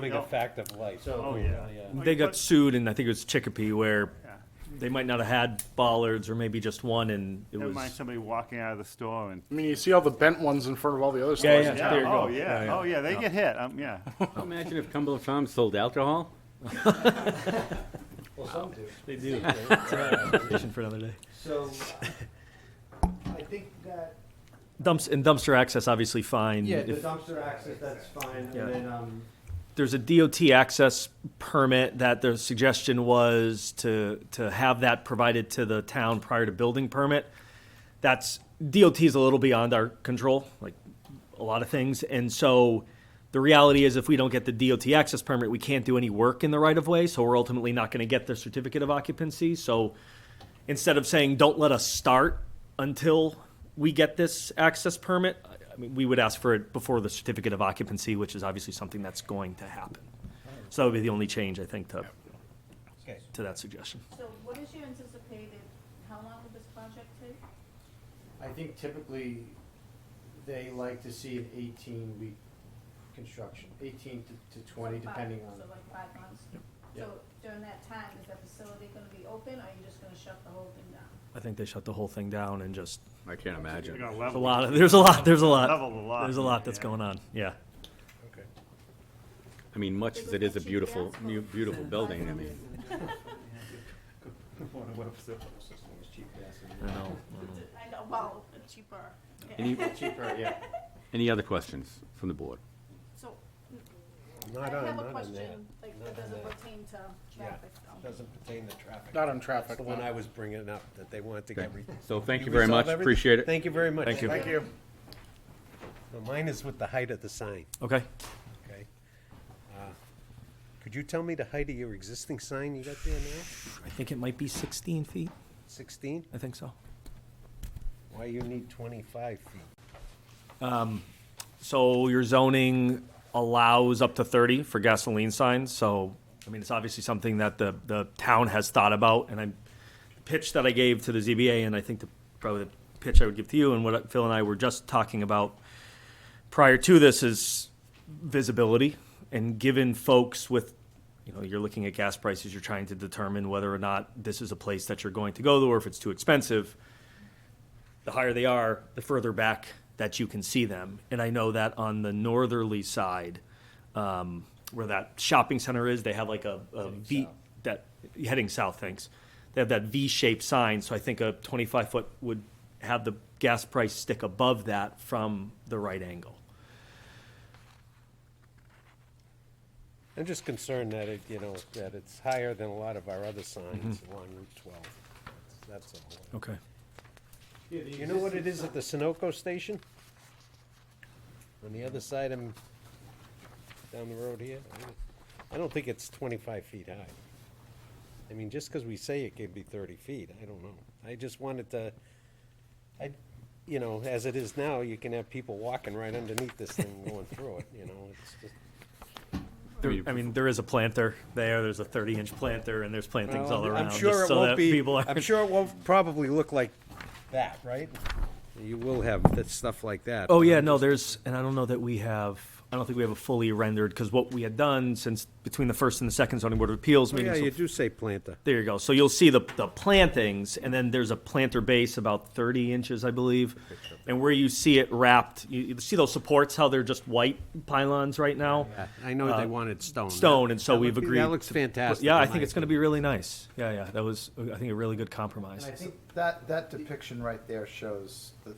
Becoming a fact of life. So, Oh, yeah. They got sued, and I think it was Chicopee, where Yeah. they might not have had bollards, or maybe just one, and it Never was. mind somebody walking out of the store and. I mean, you see all the bent ones in front of all the other Yeah, stores. yeah, in there you town. go. Oh, yeah, oh, yeah, they get hit, um, yeah. Imagine if Cumberland Farms sold alcohol? Well, some do. They do. Conversation for another day. So, I think that, Dumps and dumpster access, obviously fine. yeah, the If- dumpster access, that's fine, Yeah. and then, um, there's a DOT access permit that the suggestion was to, to have that provided to the town prior to building permit. That's, DOT is a little beyond our control, like a lot of things. And so the reality is if we don't get the DOT access permit, we can't do any work in the right of way. So we're ultimately not going to get the certificate of occupancy. So instead of saying, don't let us start until we get this access permit, I- I mean, we would ask for it before the certificate of occupancy, which is obviously something that's going to happen. So that would be the only change, I think, to, okay, to that suggestion. So what is your anticipated, how long will this project take? I think typically, they like to see an eighteen week construction, eighteen to, to twenty, So five- depending on. So like five months? Yeah. So during that time, is that facility gonna be open, or are you just gonna shut the whole thing down? I think they shut the whole thing down and just, I can't They're imagine. gonna there's a level, lot, of- there's a lot, there's a lot, level the lot. there's a lot that's yeah. going on, yeah. Okay. I mean, much as it is a beautiful, mu- beautiful building, I mean, I know. I know, well, cheaper. Yeah. any, Cheaper, yeah. any other questions from the board? So, I Not on, have a not on that. question, like, Not that on doesn't that. pertain to Yeah. traffic, though. Doesn't pertain to traffic. Not on traffic. The one I was bringing up, that they wanted to Okay. get. re- So thank you very much, resolve everything? appreciate it. Thank you very much. Thank you. Thank you. Well, Mine is with the height of the sign, Okay, okay? Uh, Could you tell me the height of your existing sign you got there now? I think it might be sixteen feet, Sixteen? I think so. Why you need twenty-five feet? So your zoning allows up to thirty for gasoline signs, so, I mean, it's obviously something that the, the town has thought about, and I, the pitch that I gave to the ZBA, and I think the, probably the pitch I would give to you, and what Phil and I were just talking about prior to this is visibility, and given folks with, you know, you're looking at gas prices, you're trying to determine whether or not this is a place that you're going to go to, or if it's too expensive the higher they are, the further back that you can see them. And I know that on the northerly side, um, where that shopping center is, they have like a, a V that heading south. Thanks. They have that V-shaped sign, so I think a 25 foot would have the gas price stick above that from the right angle. I'm just concerned that it, you know, that it's higher than a lot of our other signs Mm-hmm. along Route twelve. That's that's all. Okay. Yeah, the You know what it is existing at the Sunoco station? On the other side, I'm down the road here. I don't- I don't think it's twenty-five feet high. I mean, just because we say it could be thirty feet, I don't know. I just wanted to, I, you know, as it is now, you can have people walking right underneath this thing going through it, you know, it's just. There- I mean, there is a planter there. There's a 30 inch planter, and there's plantings Well, all I'm- around. I'm sure just it so won't that be, People are, I'm sure it won't probably look like that, right? You will have that stuff like that. Oh but yeah, I'm no, just- there's, and I don't know that we have, I don't think we have a fully rendered, because what we had done since, between the first and the second zoning board of appeals Oh, meeting. Yeah, so- you do say planter. There you go, so you'll see the, the plantings, and then there's a planter base about thirty inches, I believe. And where you see it wrapped, you, you see those supports, how they're just white pylons right now? I know they wanted stone. Uh, Stone, and so That we've would be- agreed. That looks to- fantastic. Yeah, in I my think it's gonna be really nice, yeah, yeah, that was, I think, a really good compromise. And I think that, that depiction right there shows the,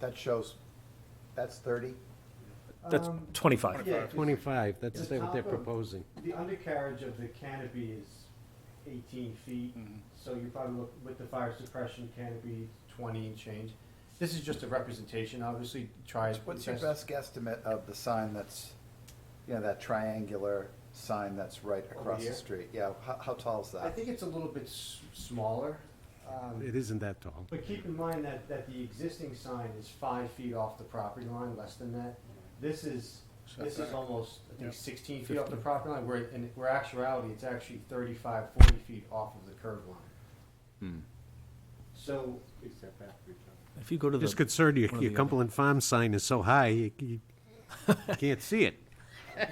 that shows, that's thirty? That's Um, twenty-five. yeah, opinion. Twenty-five, that's The what they're top of- proposing. The undercarriage of the canopy is eighteen feet, Mm-hmm. so you probably look, with the fire suppression canopy, twenty and change. This is just a representation, obviously, try. as What's your best guesstimate of the sign that's, you know, that triangular sign that's right across here? the street? Yeah, how, how tall is I that? think it's a little bit s- smaller, um, It isn't that tall. but keep in mind that, that the existing sign is five feet off the property line, less than that. This is, this is almost, I think, sixteen feet off the property line, where, in, where actuality, it's actually 35, 40 feet off of the curb line. Hmm. So, If you go to the. Just concerned, your, one or your the other. Cumberland Farm sign is so high, you, you can't see it.